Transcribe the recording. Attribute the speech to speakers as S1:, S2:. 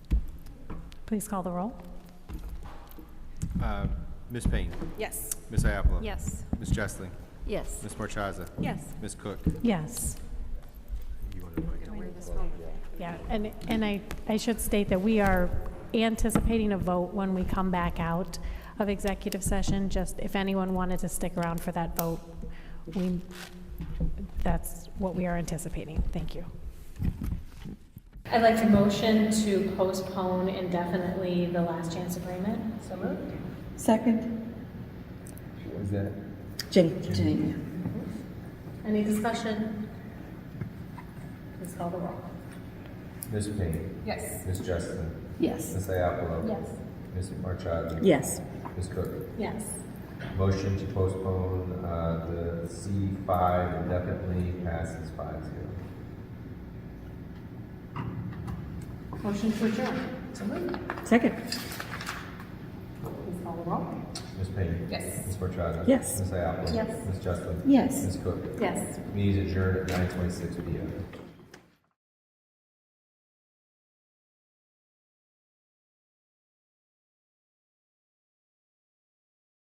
S1: Please call the roll.
S2: Uh, Ms. Payne,
S3: Yes.
S2: Ms. Iapolo.
S3: Yes.
S2: Ms. Jessling,
S4: Yes.
S2: Ms. Marchaza.
S3: Yes.
S2: Ms. Cook.
S1: Yes.
S2: You want to wait?
S1: Yeah, and, and I, I should state that we are anticipating a vote when we come back out of executive session, just if anyone wanted to stick around for that vote, we, that's what we are anticipating. Thank you. I'd like to motion to postpone indefinitely the last chance agreement. So moved.
S5: Second.
S6: Is that?
S5: Jenny.
S1: Any discussion? Please call the roll.
S6: Ms. Payne?
S3: Yes.
S6: Ms. Justin?
S5: Yes.
S6: Ms. Iapolo?
S1: Yes.
S6: Ms. Marchaza?
S5: Yes.
S6: Ms. Cook?
S1: Yes.
S6: Motion to postpone, uh, the C five indefinitely passes five zero.
S3: Motion to adjourn. So moved.
S5: Second.
S3: Please call the roll.
S6: Ms. Payne?
S3: Yes.
S6: Ms. Marchaza?
S5: Yes.
S6: Ms. Iapolo?
S3: Yes.
S6: Ms. Justin?
S5: Yes.
S6: Ms. Cook?
S3: Yes.
S6: Meeting is adjourned at nine twenty-six P M.